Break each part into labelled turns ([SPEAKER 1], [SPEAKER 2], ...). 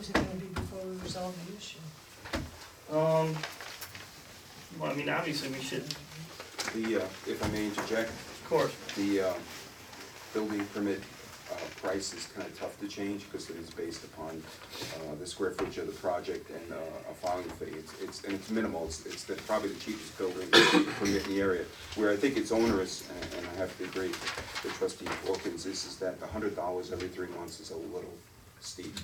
[SPEAKER 1] is it gonna be before we resolve the issue?
[SPEAKER 2] Um, well, I mean, obviously we should,
[SPEAKER 3] The, uh, if I may interject,
[SPEAKER 2] of course,
[SPEAKER 3] the um, building permit uh, price is kind of tough to change because it is based upon uh, the square footage of the project and uh, a filing fee. It's- It's, and it's minimal, it's, it's the- probably the cheapest building permit in the area. Where I think it's onerous, and- and I have to agree with trustee Wilkins, is, is that hundred dollars every three months is a little steep.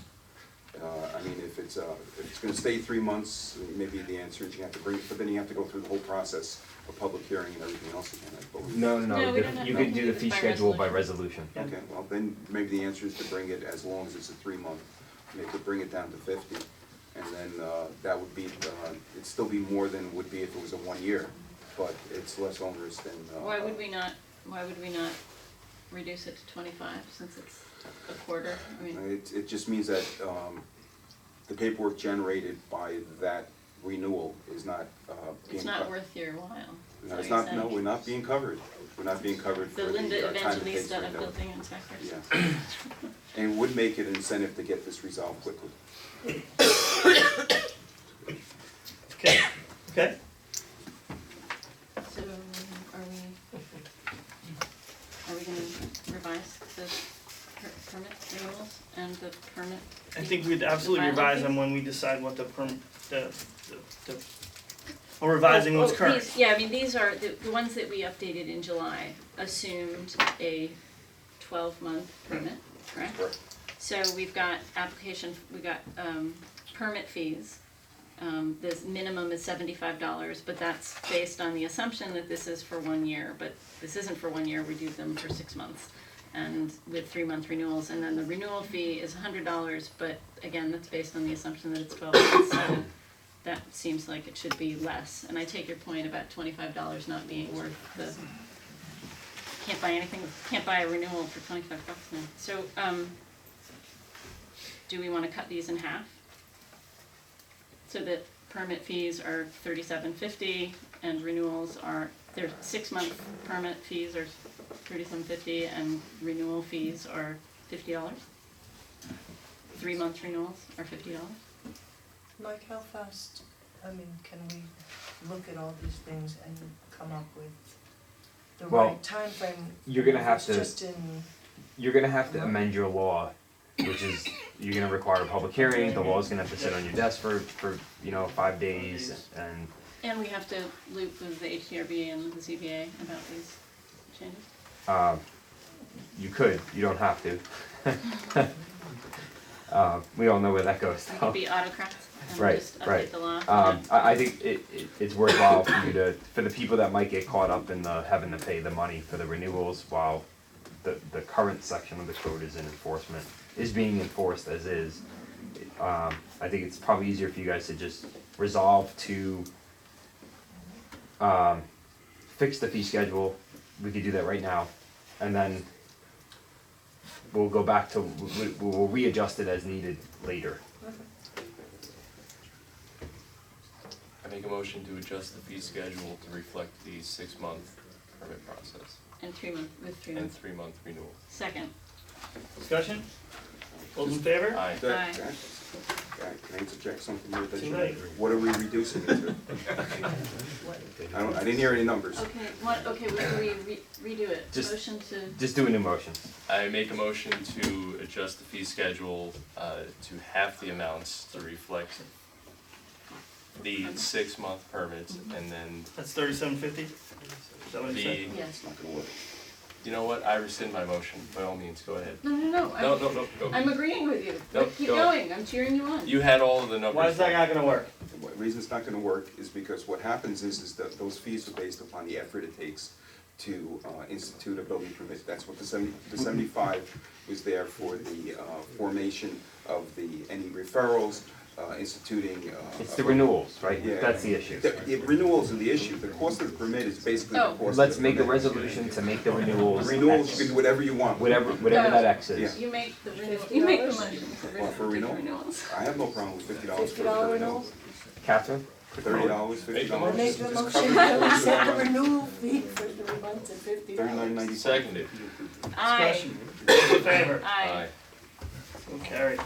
[SPEAKER 3] Uh, I mean, if it's, uh, if it's gonna stay three months, maybe the answer is you have to bring, it, but then you have to go through the whole process of public hearing and everything else again, I believe.
[SPEAKER 4] No, no,
[SPEAKER 5] No,
[SPEAKER 4] no,
[SPEAKER 5] we
[SPEAKER 4] the-
[SPEAKER 5] don't have
[SPEAKER 4] you
[SPEAKER 5] to
[SPEAKER 4] can do
[SPEAKER 5] do
[SPEAKER 4] the
[SPEAKER 5] this
[SPEAKER 4] fee
[SPEAKER 5] by
[SPEAKER 4] schedule by resolution.
[SPEAKER 2] Yeah.
[SPEAKER 3] Okay, well, then maybe the answer is to bring it as long as it's a three-month, maybe to bring it down to fifty. And then, uh, that would be, uh, it'd still be more than would be if it was a one-year, but it's less onerous than, uh.
[SPEAKER 5] Why would we not, why would we not reduce it to twenty-five since it's a quarter? I
[SPEAKER 3] Uh,
[SPEAKER 5] mean,
[SPEAKER 3] It, it just means that, um, the paperwork generated by that renewal is not, uh, being.
[SPEAKER 5] it's not
[SPEAKER 3] co-
[SPEAKER 5] worth your while. is
[SPEAKER 3] No,
[SPEAKER 5] what
[SPEAKER 3] it's
[SPEAKER 5] you're
[SPEAKER 3] not, no,
[SPEAKER 5] saying.
[SPEAKER 3] we're not being covered, we're not being covered for
[SPEAKER 5] The
[SPEAKER 3] the uh, time
[SPEAKER 5] Linda
[SPEAKER 3] it takes to renew.
[SPEAKER 5] Evangelista of building inspectors.
[SPEAKER 3] Yeah. And it would make it an incentive to get this resolved quickly.
[SPEAKER 2] okay, okay,
[SPEAKER 5] So um, are we, are we gonna revise the per- permit renewals and the permit?
[SPEAKER 2] I think we'd absolutely
[SPEAKER 5] The filing
[SPEAKER 2] revise
[SPEAKER 5] fee?
[SPEAKER 2] them when we decide what the perm, the, the, the, or revising what's
[SPEAKER 5] Oh, oh,
[SPEAKER 2] current.
[SPEAKER 5] these- Yeah, I mean, these are, the, the ones that we updated in July assumed a twelve-month permit, correct?
[SPEAKER 3] Correct.
[SPEAKER 5] So we've got application, we got, um, permit fees. Um, the minimum is seventy-five dollars, but that's based on the assumption that this is for one year, but this isn't for one year, we do them for six months. And with three-month renewals, and then the renewal fee is hundred dollars, but again, that's based on the assumption that it's twelve months, so that seems like it should be less. And I take your point about twenty-five dollars not being worth the, can't buy anything, can't buy a renewal for twenty-five bucks now. So, um, do we wanna cut these in half? So that permit fees are thirty-seven fifty and renewals are, their six-month permit fees are thirty-seven fifty and renewal fees are fifty dollars? Three-month renewals are fifty dollars?
[SPEAKER 1] Mike, how fast, I mean, can we look at all these things and come up with the
[SPEAKER 4] Well,
[SPEAKER 1] right timeframe?
[SPEAKER 4] you're gonna have
[SPEAKER 1] It's
[SPEAKER 4] to-
[SPEAKER 1] Just in,
[SPEAKER 4] You're gonna have to amend your law, which is, you're gonna require a public hearing, the law's gonna have to sit on your desk for, for, you know, five days, and
[SPEAKER 5] And we have to loop with the HDRB and the ZBA about these changes?
[SPEAKER 4] Um, you could, you don't have to. Uh, we all know where that goes
[SPEAKER 5] We
[SPEAKER 4] though.
[SPEAKER 5] could be autocrats and
[SPEAKER 4] Oh. Right,
[SPEAKER 5] just update
[SPEAKER 4] right.
[SPEAKER 5] the law.
[SPEAKER 4] Um, I, I think it, it, it's worthwhile for you to, for the people that might get caught up in the, having to pay the money for the renewals while the, the current section of the code is in enforcement, is being enforced as is. Um, I think it's probably easier for you guys to just resolve to, um, fix the fee schedule, we could do that right now, and then we'll go back to, we, we- we'll readjust it as needed later.
[SPEAKER 6] I make a motion to adjust the fee schedule to reflect the six-month permit process
[SPEAKER 5] And three month, with three
[SPEAKER 6] and
[SPEAKER 5] months.
[SPEAKER 6] three-month renewal.
[SPEAKER 5] Second,
[SPEAKER 2] Discussion? All those in favor?
[SPEAKER 6] Aye.
[SPEAKER 3] That-
[SPEAKER 5] Aye.
[SPEAKER 3] that- that- Can I interject something here that you?
[SPEAKER 2] Tonight.
[SPEAKER 3] What are we reducing it to?
[SPEAKER 1] what,
[SPEAKER 3] I don't, I didn't hear any numbers.
[SPEAKER 5] okay, what, okay, we, we re- redo it,
[SPEAKER 4] Just-
[SPEAKER 5] motion to,
[SPEAKER 4] Just do a new motion.
[SPEAKER 6] I make a motion to adjust the fee schedule uh, to half the amounts to reflect the six-month permits and then
[SPEAKER 2] That's thirty-seven fifty? Is that what you
[SPEAKER 6] the,
[SPEAKER 2] said?
[SPEAKER 5] yes.
[SPEAKER 3] It's not gonna work.
[SPEAKER 6] you know what, I rescind my motion, by all means, go ahead.
[SPEAKER 5] No, no, no,
[SPEAKER 6] No,
[SPEAKER 5] I'm,
[SPEAKER 6] no, no,
[SPEAKER 5] I'm
[SPEAKER 6] go.
[SPEAKER 5] agreeing with you,
[SPEAKER 6] No,
[SPEAKER 5] but keep
[SPEAKER 6] go.
[SPEAKER 5] going, I'm cheering you on.
[SPEAKER 6] You had all of the numbers.
[SPEAKER 2] Why is that not gonna work?
[SPEAKER 3] The wa- reason it's not gonna work is because what happens is, is that those fees are based upon the effort it takes to, uh, institute a building permit. That's what the seventy, the seventy-five was there for the, uh, formation of the, any referrals, uh, instituting, uh.
[SPEAKER 4] It's
[SPEAKER 3] a-
[SPEAKER 4] the renewals, right?
[SPEAKER 3] Yeah.
[SPEAKER 4] That's the issue.
[SPEAKER 3] The, the renewals are the issue, the cost of the permit is basically the
[SPEAKER 5] Oh.
[SPEAKER 3] cost of the
[SPEAKER 4] Let's make a
[SPEAKER 3] permit.
[SPEAKER 4] resolution to make the renewals.
[SPEAKER 3] Renewals,
[SPEAKER 4] X,
[SPEAKER 3] you can do whatever you want.
[SPEAKER 4] Whatever, whatever that X is.
[SPEAKER 5] You make the renewal,
[SPEAKER 1] Fifty
[SPEAKER 5] you make the
[SPEAKER 1] dollars?
[SPEAKER 5] motion for
[SPEAKER 3] Well, for renewal.
[SPEAKER 5] renewal, take renewals.
[SPEAKER 3] I have no problem with fifty dollars for a
[SPEAKER 1] $50
[SPEAKER 3] renewal.
[SPEAKER 1] renewal?
[SPEAKER 4] Catherine?
[SPEAKER 3] Thirty dollars, fifty
[SPEAKER 6] Make the
[SPEAKER 3] dollars.
[SPEAKER 6] motion.
[SPEAKER 1] make the motion that we set the renewal fee for three months at fifty dollars.
[SPEAKER 3] Thirty-nine ninety-seven.
[SPEAKER 6] Seconded.
[SPEAKER 5] Aye,
[SPEAKER 2] Discussion? All those in favor?
[SPEAKER 5] aye.
[SPEAKER 6] Aye.
[SPEAKER 2] So carried.